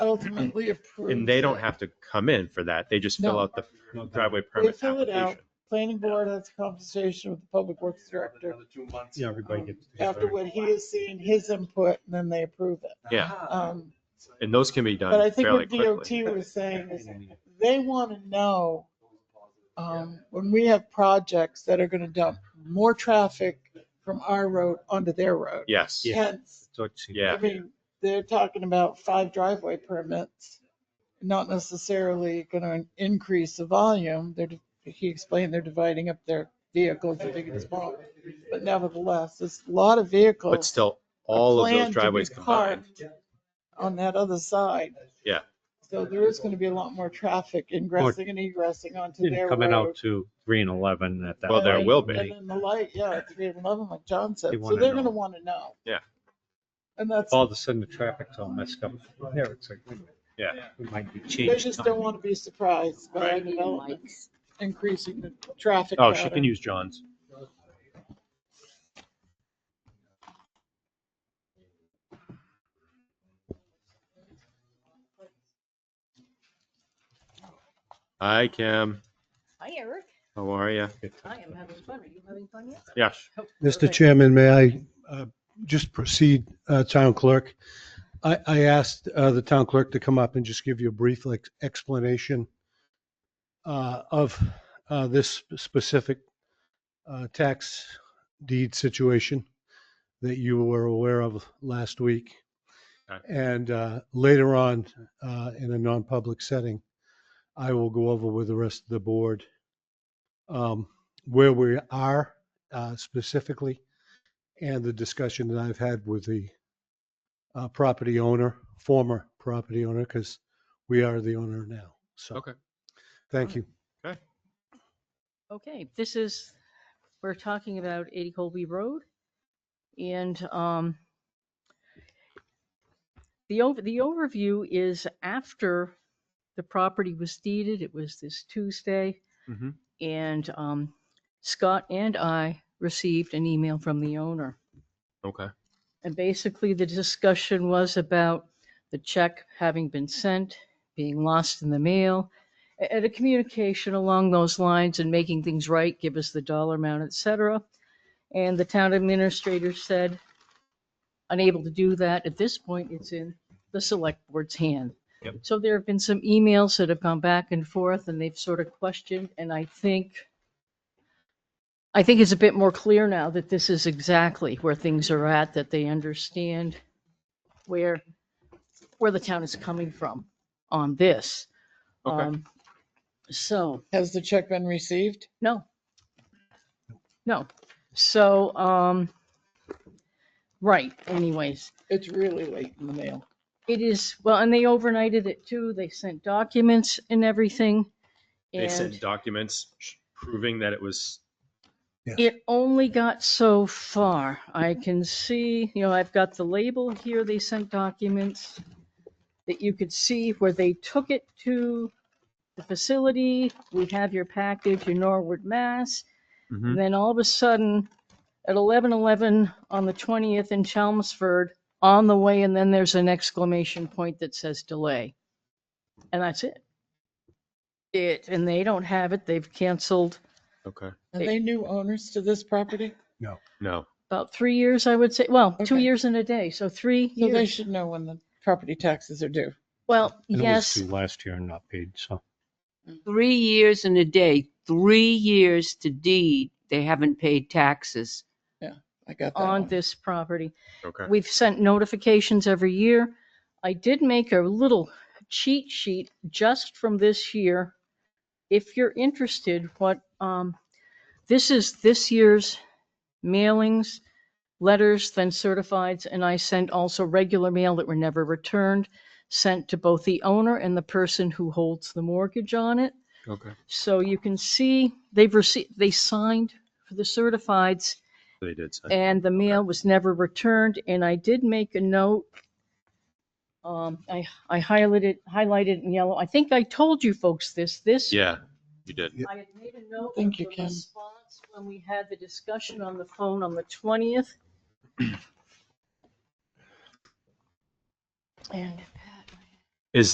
ultimately approved. And they don't it. have to come in for that. They just fill No. out the No, driveway They permit fill it out. application. Planning board has a conversation with the public works director Another two months. Yeah, everybody gets. after what he has seen, his input, and then they approve it. Yeah. Ah. Um, And those can be But I done think fairly what quickly. DOT was saying is they want to know, um, when we have projects that are going to dump more traffic from our road onto their road. Yes, Yeah. Hence, Yeah. I mean, they're talking about five driveway permits, not necessarily going to increase the volume. They're, he explained they're dividing up their vehicles, the big and small. But nevertheless, there's a lot of but vehicles still, are all of planned to those be driveways combined. parked on that other side. Yeah. So there is going to be a lot more traffic ingressing and egressing onto their Coming out road. to three and eleven at that. Well, there point. will be. And then the light, yeah, three and eleven, like John said. They So wanna they're know. going to want to know. Yeah. And that's, All of a sudden, the traffic's all messed up. There, it's like. wait a minute, Yeah. We might be they changed. just don't want to be surprised by Right, development. Mike's. increasing the traffic. Oh, she pattern. can use John's. Hi, Kim. Hi, Eric. How are you? I am having fun. Are you having fun yet? Yes. Oh, Mr. perfect. Chairman, may I uh, just proceed, uh, Town Clerk? I I asked uh, the Town Clerk to come up and just give you a brief like, explanation uh, of uh, this specific uh, tax deed situation that you were aware of last week. Okay. And uh, later on, uh, in a non-public setting, I will go over with the rest of the board um, where we are uh, specifically, and the discussion that I've had with the uh, property owner, former property owner, because we are the owner now. So. Okay. Thank you. Okay, this is, we're talking about 80 Colby Road. And um, the over, the overview is after the property was deeded, it was this Tuesday. Mhm. And um, Scott and I received an email from the owner. Okay. And basically, the discussion was about the check having been sent, being lost in the mail, a- and a communication along those lines and making things right, give us the dollar amount, et cetera. And the town administrator said, unable to do that. At this point, it's in the select board's hand. Yep. So there have been some emails that have gone back and forth and they've sort of questioned, and I think, I think it's a bit more clear now that this is exactly where things are at, that they understand where, where the town is coming from on this. Okay. Um, So, Has the check been received? no. No. So, um, right, anyways. It's really late in the mail. It is, well, and they overnighted it too. They sent documents and everything. They sent And documents proving that it was, it only got so far. I can see, you know, I've got the label here. They sent documents that you could see where they took it to the facility. We have your package, your Norwood, Mass. Mhm. Then all of a sudden, at 11:11 on the 20th in Chelmsford, on the way, and then there's an exclamation point that says delay. And that's it. It, and they don't have it. They've canceled okay, Are they new owners to this property? no. about three years, I would say. Well, two Okay. years and a day, so three So they years. should know when the property taxes are due. Well, And it was yes, due Last year and not paid, so. Three years and a day, three years to deed, they haven't paid taxes. I got that on one. this property. Okay. We've sent notifications every year. I did make a little cheat sheet just from this year. If you're interested, what, um, this is this year's mailings, letters, then certifieds, and I sent also regular mail that were never returned, sent to both the owner and the person who holds the mortgage on it. Okay. So you can see they've received, they signed for the certifieds They did send. and the mail was never returned, and I did make a note. Um, I, I highlighted, highlighted in yellow. I think I told you folks this, this. Yeah, you did. I had made a note of Thank you, the Kim. response when we had the discussion on the phone on the twentieth. And